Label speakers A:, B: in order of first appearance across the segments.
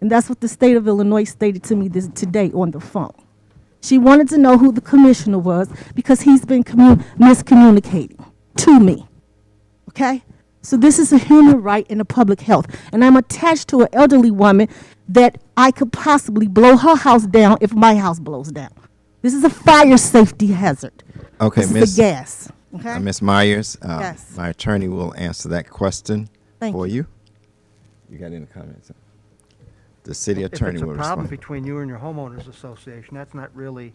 A: And that's what the state of Illinois stated to me this, today on the phone. She wanted to know who the commissioner was because he's been commu- miscommunicating to me. Okay? So this is a human right and a public health. And I'm attached to an elderly woman that I could possibly blow her house down if my house blows down. This is a fire safety hazard.
B: Okay,
A: this
B: Miss-
A: is a gas. Okay?
B: Uh, Ms. Myers, uh,
A: Yes.
B: my attorney will answer that question
A: Thank
B: for you. You got any comments? The city
C: If
B: attorney
C: it's a
B: will
C: problem
B: respond.
C: between you and your homeowners association, that's not really,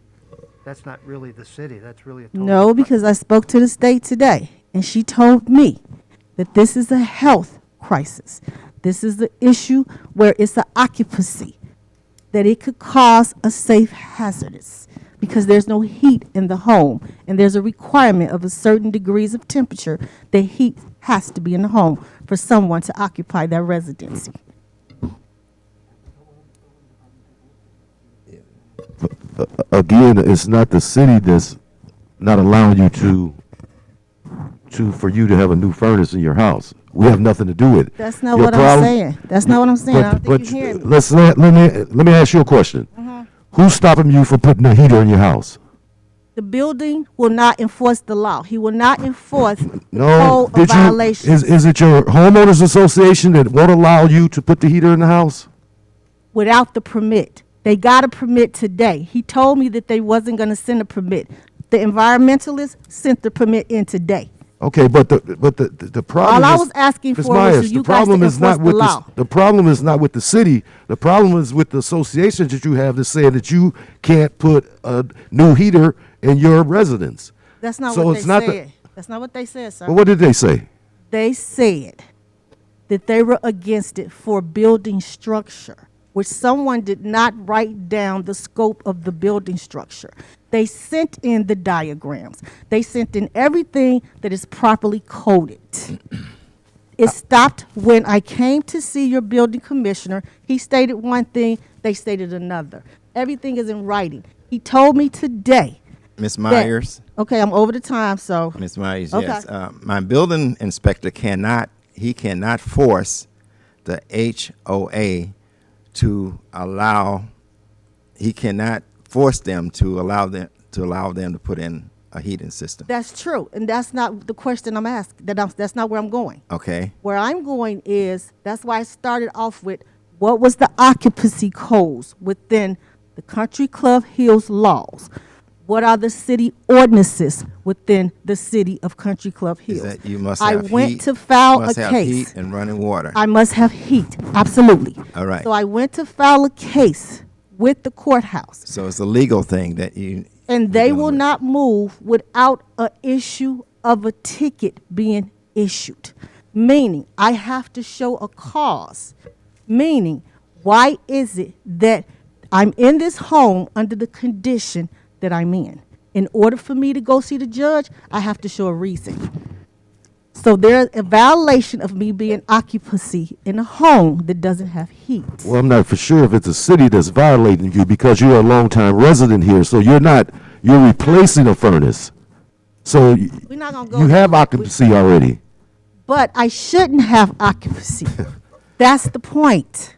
C: that's not really the city, that's really a total.
A: No, because I spoke to the state today, and she told me that this is a health crisis. This is the issue where it's an occupancy, that it could cause a safe hazardous because there's no heat in the home, and there's a requirement of a certain degrees of temperature that heat has to be in the home for someone to occupy that residency.
D: again, it's not the city that's not allowing you to to for you to have a new furnace in your house. We have nothing to do with it.
A: That's not
D: Your
A: what I'm
D: problem-
A: saying. That's not what I'm saying. I don't think you're hearing me. Uh-huh.
D: let's let, let me let me ask you a question. Who's stopping you from putting a heater in your house?
A: The building will not enforce the law. He will not enforce the
D: No,
A: code of
D: did you?
A: violations.
D: Is is it your homeowners association that won't allow you to put the heater in the house?
A: without the permit. They got a permit today. He told me that they wasn't going to send a permit. The environmentalists sent the permit in today.
D: Okay, but the but the the, the problem.
A: I
D: is-
A: was asking
D: Ms.
A: for was
D: Myers,
A: for you
D: the
A: guys to
D: problem is not
A: enforce the
D: with s-
A: law.
D: the problem is not with the city. The problem is with the associations that you have that say that you can't put a new heater in your residence.
A: That's not
D: So
A: what
D: it's
A: they
D: not the-
A: said. That's not what they said, sir.
D: Well, what did they say?
A: they said that they were against it for building structure, which someone did not write down the scope of the building structure. They sent in the diagrams. They sent in everything that is properly coded. It stopped when I came to see your building commissioner. He stated one thing, they stated another. Everything is in writing. He told me today.
B: Ms.
A: that-
B: Myers,
A: Okay, I'm over the time, so.
B: Ms. Myers,
A: Okay.
B: yes. Uh, My building inspector cannot, he cannot force the HOA to allow, he cannot force them to allow them, to allow them to put in a heating system,
A: That's true, and that's not the question I'm asking. That I'm, that's not where I'm going.
B: okay?
A: Where I'm going is that's why I started off with what was the occupancy codes within the Country Club Hills laws. What are the city ordinances within the city of Country Club Hills?
B: Is that you must
A: I
B: have heat.
A: went to file
B: must
A: a
B: have
A: case.
B: heat And running water.
A: I must have heat, absolutely.
B: All right.
A: So I went to file a case with the courthouse.
B: So it's a legal thing that you.
A: And
B: you're
A: they
B: dealing
A: will
B: with.
A: not move without a issue of a ticket being issued. Meaning, I have to show a cause. Meaning, why is it that I'm in this home under the condition that I'm in? In order for me to go see the judge, I have to show a reason. So there's a violation of me being occupancy in a home that doesn't have heat.
D: Well, I'm not for sure if it's a city that's violating you because you're a longtime resident here, so you're not you're replacing a furnace. So y-
A: We're not gonna go.
D: you
A: there.
D: have
A: We-
D: occupancy already.
A: but I shouldn't have occupancy. That's the point.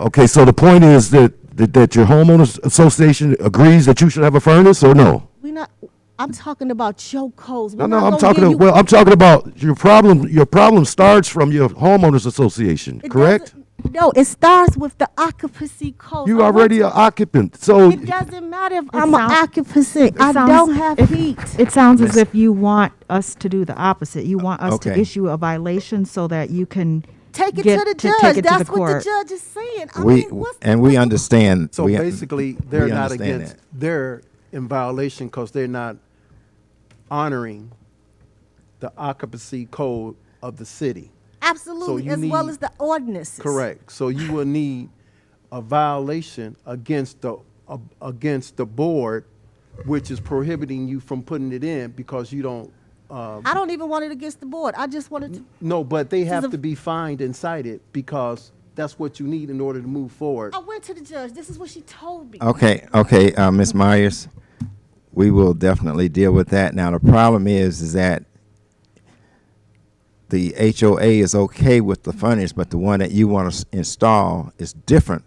D: Okay, so the point is that, that, that your homeowners association agrees that you should have a furnace or no?
A: We're not. I'm talking about your codes.
D: No,
A: We're
D: no,
A: not
D: I'm
A: gonna
D: talking,
A: give
D: to-
A: you-
D: well, I'm talking about your problem, your problem starts from your homeowners association,
A: It
D: correct?
A: doesn't- No, it starts with the occupancy code.
D: You already an occupant, so,
A: It doesn't matter if I'm an
E: sounds-
A: occupancy. I
E: sounds-
A: don't have
E: it-
A: heat.
E: It sounds as if you want us to do the opposite. You want us to
B: Okay.
E: issue a violation so that you can
A: Take it
E: get
A: to the
E: take
A: judge.
E: it to
A: That's
E: the
A: what the
E: court.
A: judge is saying. I
B: We,
A: mean, what's the
B: and we understand.
F: So
B: we-
F: basically, they're
B: we
F: not
B: understand
F: against,
B: that.
F: they're in violation because they're not honoring the occupancy code of the city.
A: absolutely
F: you
A: as well
F: need-
A: as the ordinances.
F: Correct. So you will need a violation against the, a- against the board, which is prohibiting you from putting it in because you don't, uh,
A: I don't even want it against the board. I just wanted to.
F: no, but they
A: a-
F: have to be fined and cited because that's what you need in order to move forward.
A: I went to the judge. This is what she told me.
B: Okay, okay, uh, Ms. Myers, we will definitely deal with that. Now, the problem is, is that the HOA is okay with the furnace, but the one that you want to install is different